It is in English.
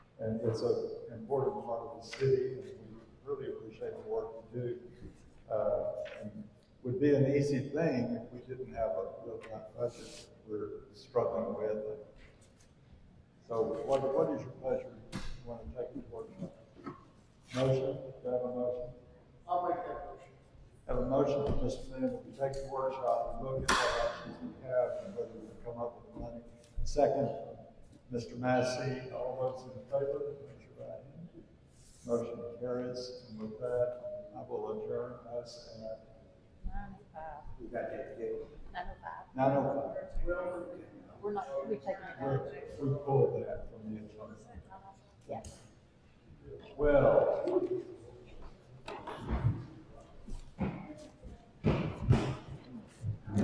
And it's an important part of the city, and we really appreciate the work you do. Uh, and Would be an easy thing if we didn't have a real tight budget we're struggling with. So what, what is your pleasure? You want to take the workshop? Motion, do I have a motion? I'll make that motion. Have a motion from Mr. Flynn, we take the workshop, we look at what options we have, and whether we can come up with money. Second, Mr. Massey, all those in favor, raise your right hand. Motion carries, and with that, I will adjourn us at Nine oh five. You got that, Jay? Nine oh five. nine oh five. Well, We're not, we're taking it out. We're- We pulled that from the agenda. Yes. Well,